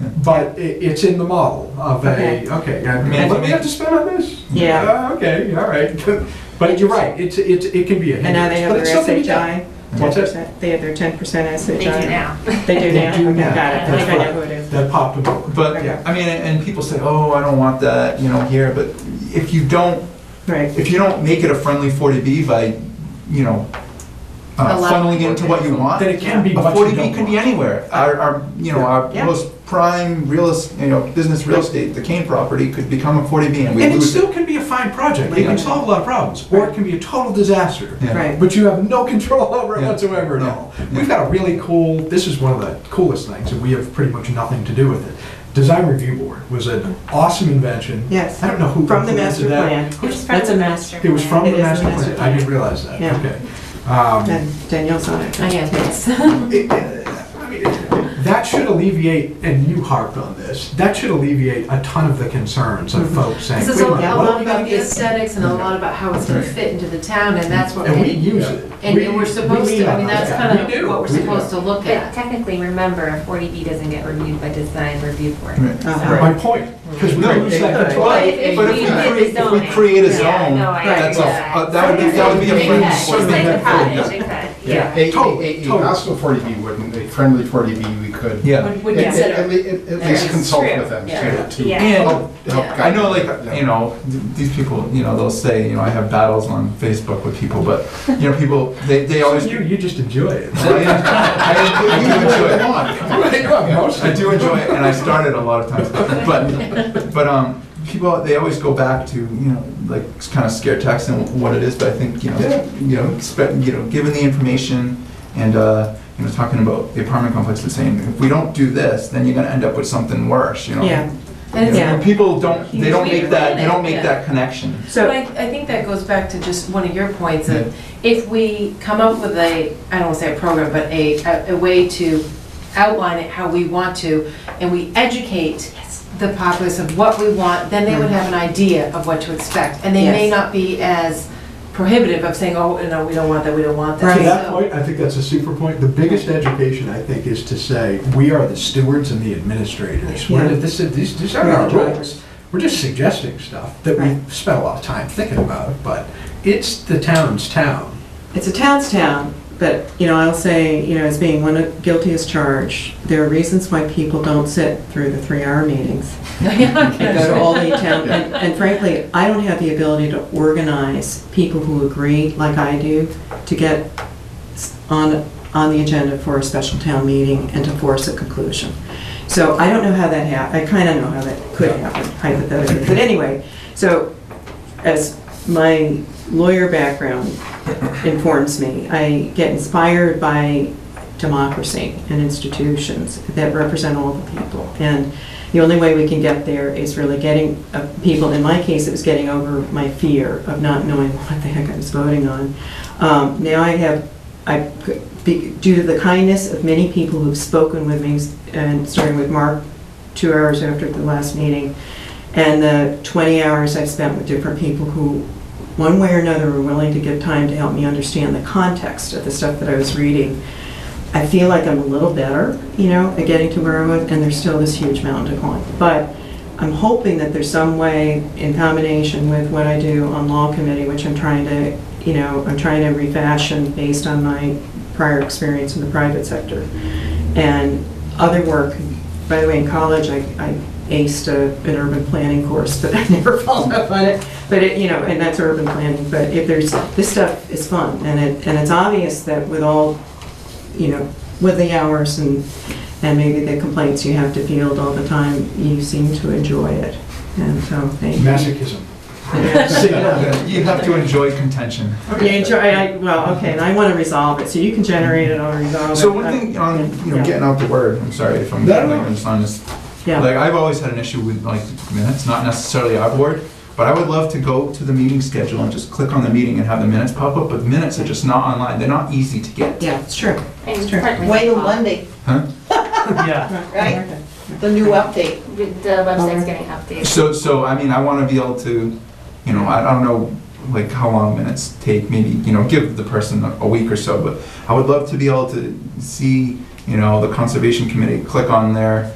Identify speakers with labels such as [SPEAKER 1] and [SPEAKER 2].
[SPEAKER 1] But it, it's in the model of a,
[SPEAKER 2] Okay.
[SPEAKER 1] okay, I
[SPEAKER 3] I mean,
[SPEAKER 1] mean, what
[SPEAKER 3] if
[SPEAKER 1] do
[SPEAKER 3] you
[SPEAKER 1] we
[SPEAKER 3] make-
[SPEAKER 1] have to spend on this?
[SPEAKER 2] Yeah.
[SPEAKER 1] Uh, Okay, all right. But you're right, it's, it's, it can be a
[SPEAKER 2] And now they
[SPEAKER 1] hindrance,
[SPEAKER 2] have
[SPEAKER 1] but
[SPEAKER 2] their
[SPEAKER 1] it's something to do.
[SPEAKER 2] SHI, ten
[SPEAKER 1] What's that?
[SPEAKER 2] percent, they have their ten percent SHI.
[SPEAKER 4] They do now.
[SPEAKER 2] They do
[SPEAKER 1] They
[SPEAKER 2] now?
[SPEAKER 1] do
[SPEAKER 2] Okay,
[SPEAKER 1] now.
[SPEAKER 2] Got it, I
[SPEAKER 1] That's
[SPEAKER 2] think I know
[SPEAKER 1] right.
[SPEAKER 2] who it is.
[SPEAKER 1] That popped them over.
[SPEAKER 3] But,
[SPEAKER 2] Okay.
[SPEAKER 3] I mean, and people say, oh, I don't want that, you know, here, but if you don't,
[SPEAKER 2] Right,
[SPEAKER 3] if you don't make it a friendly 40B by, you know, uh,
[SPEAKER 4] Allow-
[SPEAKER 3] funneling into what you want,
[SPEAKER 1] Then it can be
[SPEAKER 3] A
[SPEAKER 1] what you
[SPEAKER 3] forty B
[SPEAKER 1] don't
[SPEAKER 3] could be
[SPEAKER 1] want.
[SPEAKER 3] anywhere. Our, our, you know, our
[SPEAKER 2] Yeah.
[SPEAKER 3] most prime real, es- you know, business real estate, the Kane property could become a forty B and we
[SPEAKER 1] And it
[SPEAKER 3] lose it.
[SPEAKER 1] still can be a fine project, it
[SPEAKER 2] Yeah.
[SPEAKER 1] can solve a lot of problems, or it can be a total disaster.
[SPEAKER 3] Yeah.
[SPEAKER 2] right.
[SPEAKER 1] But you have no control over it
[SPEAKER 3] Yeah.
[SPEAKER 1] whatsoever at
[SPEAKER 3] Yeah.
[SPEAKER 1] all.
[SPEAKER 3] Yeah.
[SPEAKER 1] We've got a really cool, this is one of the coolest things, and we have pretty much nothing to do with it. Design Review Board was an awesome invention.
[SPEAKER 2] Yes.
[SPEAKER 1] I don't know who.
[SPEAKER 2] From the
[SPEAKER 1] implemented
[SPEAKER 2] master
[SPEAKER 1] that.
[SPEAKER 2] plan.
[SPEAKER 4] It was
[SPEAKER 2] That's a
[SPEAKER 4] from the
[SPEAKER 2] mess.
[SPEAKER 1] It was from
[SPEAKER 4] plan.
[SPEAKER 2] It
[SPEAKER 1] the
[SPEAKER 2] is
[SPEAKER 1] master
[SPEAKER 2] the master
[SPEAKER 1] plan, I didn't realize that,
[SPEAKER 2] Yeah.
[SPEAKER 1] okay. Um,
[SPEAKER 2] And Danielle's on it.
[SPEAKER 4] I am, yes.
[SPEAKER 1] it- I mean, That should alleviate, and you harped on this, that should alleviate a ton of the concerns
[SPEAKER 2] Mm-hmm.
[SPEAKER 1] of folks saying.
[SPEAKER 4] This is
[SPEAKER 1] "Wait
[SPEAKER 4] a a
[SPEAKER 1] minute, what do
[SPEAKER 4] lot
[SPEAKER 1] we
[SPEAKER 4] about
[SPEAKER 1] gotta
[SPEAKER 4] the
[SPEAKER 1] do?"
[SPEAKER 4] aesthetics and a lot about how it's gonna
[SPEAKER 3] Right.
[SPEAKER 4] fit into the town, and that's what,
[SPEAKER 1] And we
[SPEAKER 4] and
[SPEAKER 1] use it. We-
[SPEAKER 4] and we're supposed
[SPEAKER 1] we
[SPEAKER 4] to, I
[SPEAKER 1] lean
[SPEAKER 4] mean,
[SPEAKER 1] on
[SPEAKER 4] that's
[SPEAKER 1] that.
[SPEAKER 4] kind
[SPEAKER 1] We do.
[SPEAKER 4] of what we're
[SPEAKER 1] We do.
[SPEAKER 4] supposed to look
[SPEAKER 5] But
[SPEAKER 4] at.
[SPEAKER 5] technically, remember, a 40B doesn't get reviewed by design review board.
[SPEAKER 3] Right.
[SPEAKER 5] so-
[SPEAKER 2] Uh-huh.
[SPEAKER 1] My point, because we
[SPEAKER 3] No,
[SPEAKER 1] lose
[SPEAKER 2] they
[SPEAKER 1] that
[SPEAKER 2] could.
[SPEAKER 1] control.
[SPEAKER 5] But
[SPEAKER 3] But
[SPEAKER 5] if- if
[SPEAKER 3] if
[SPEAKER 5] we
[SPEAKER 3] we
[SPEAKER 5] did the
[SPEAKER 3] create, if we
[SPEAKER 5] zoning.
[SPEAKER 3] create a
[SPEAKER 5] Yeah,
[SPEAKER 3] zone,
[SPEAKER 5] no, I
[SPEAKER 3] that's a,
[SPEAKER 5] agree.
[SPEAKER 3] uh, that would be, that would be a
[SPEAKER 5] They
[SPEAKER 3] friendly.
[SPEAKER 5] could. Just like the cottage, they could,
[SPEAKER 6] Yeah,
[SPEAKER 5] yeah.
[SPEAKER 6] a,
[SPEAKER 1] Totally,
[SPEAKER 6] a, a,
[SPEAKER 1] totally.
[SPEAKER 6] also forty B wouldn't, a friendly forty B we could.
[SPEAKER 3] Yeah.
[SPEAKER 4] Would would
[SPEAKER 6] At- at-
[SPEAKER 4] consider.
[SPEAKER 6] At, le- at- at least
[SPEAKER 5] Yeah.
[SPEAKER 6] consult
[SPEAKER 5] True.
[SPEAKER 6] with them
[SPEAKER 5] Yeah.
[SPEAKER 6] to, to.
[SPEAKER 5] Yeah.
[SPEAKER 3] And-
[SPEAKER 6] help- help
[SPEAKER 5] Yeah.
[SPEAKER 6] guide
[SPEAKER 3] I know,
[SPEAKER 6] them. Yeah.
[SPEAKER 3] like, you know, th- these people, you know, they'll say, you know, I have battles on Facebook with people, but, you know, people, they, they always.
[SPEAKER 1] You, you just enjoy it.
[SPEAKER 3] I I do enjoy it.
[SPEAKER 6] Come on, come on.
[SPEAKER 3] I do enjoy it, and I started a lot of times, but but um, people they always go back to you know like kind of scare text and what it is, but I think you know
[SPEAKER 1] Yeah.
[SPEAKER 3] you know expect, you know given the information and uh, you know talking about the apartment complex and saying if we don't do this, then you're gonna end up with something worse, you know.
[SPEAKER 2] Yeah,
[SPEAKER 3] You know,
[SPEAKER 4] And it's-
[SPEAKER 3] and people don't they don't
[SPEAKER 4] We
[SPEAKER 3] make that they don't
[SPEAKER 4] plan it,
[SPEAKER 3] make
[SPEAKER 4] yeah.
[SPEAKER 3] that connection.
[SPEAKER 4] But I,
[SPEAKER 2] so,
[SPEAKER 4] I think that goes back to just one of your points of, if we come up with a, I don't want to say a program, but a, a- a way to outline it how we want to, and we educate the populace of what we want, then they would have an idea of what to expect. And they may
[SPEAKER 2] Mm-hmm. Yes.
[SPEAKER 4] not be as prohibitive of saying, oh, no, we don't want that, we don't want
[SPEAKER 1] To
[SPEAKER 4] that.
[SPEAKER 1] that
[SPEAKER 4] So-
[SPEAKER 1] point, I think that's a super point. The biggest education, I think, is to say, we are the stewards and the administrators. We're,
[SPEAKER 2] Yeah.
[SPEAKER 1] this, is- these, these are
[SPEAKER 2] We're
[SPEAKER 1] our
[SPEAKER 2] the
[SPEAKER 1] roles.
[SPEAKER 2] drivers.
[SPEAKER 1] We're just suggesting stuff that we
[SPEAKER 2] Right.
[SPEAKER 1] spent a lot of time thinking about, but it's the town's town.
[SPEAKER 2] it's a town's town, but, you know, I'll say, you know, as being one of guilty as charged, there are reasons why people don't sit through the three-hour meetings. and go to all the town, and and frankly, I don't have the ability to organize people who agree, like I do, to get s- on, on the agenda for a special town meeting and to force a conclusion. So I don't know how that hap, I kind of know how that could happen hypothetically, but anyway, so as my lawyer background informs me, I get inspired by democracy and institutions that represent all the people. And the only way we can get there is really getting uh, people, in my case, it was getting over my fear of not knowing what the heck I was voting on. Um, Now I have, I, be- due to the kindness of many people who've spoken with me, and starting with Mark two hours after the last meeting, and the 20 hours I've spent with different people who, one way or another, were willing to give time to help me understand the context of the stuff that I was reading. I feel like I'm a little better, you know, at getting to where I was, and there's still this huge mountain to climb. But I'm hoping that there's some way, in combination with what I do on law committee, which I'm trying to, you know, I'm trying to refashion based on my prior experience in the private sector and other work. By the way, in college, I, I aced a, an urban planning course, but I never followed up on it. But it, you know, and that's urban planning, but if there's, this stuff is fun, and it, and it's obvious that with all, you know, with the hours and, and maybe the complaints you have to field all the time, you seem to enjoy it, and so, thank you.
[SPEAKER 1] Masochism.
[SPEAKER 3] You have to enjoy contention.
[SPEAKER 2] You enjoy, I, well, okay, and I want to resolve it, so you can generate it, I'll resolve it.
[SPEAKER 3] So one thing on you know
[SPEAKER 2] Yeah.
[SPEAKER 3] getting out the word. I'm sorry if I'm
[SPEAKER 1] Um, No, no, no.
[SPEAKER 3] like, just on this
[SPEAKER 2] Yeah,
[SPEAKER 3] Like, I've always had an issue with, like, I mean, that's not necessarily our board, but I would love to go to the meeting schedule and just click on the meeting and have the minutes pop up, but minutes are just not online, they're not easy to get.
[SPEAKER 2] yeah, it's true.
[SPEAKER 5] And
[SPEAKER 2] Sure.
[SPEAKER 5] partly-
[SPEAKER 7] Wait till Monday,
[SPEAKER 3] Huh?
[SPEAKER 8] Yeah,
[SPEAKER 7] right? The new update.
[SPEAKER 5] The the website's getting updated.
[SPEAKER 3] So, so, I mean, I wanna be able to, you know, I I don't know, like, how long minutes take, maybe, you know, give the person a a week or so, but I would love to be able to see, you know, the conservation committee, click on their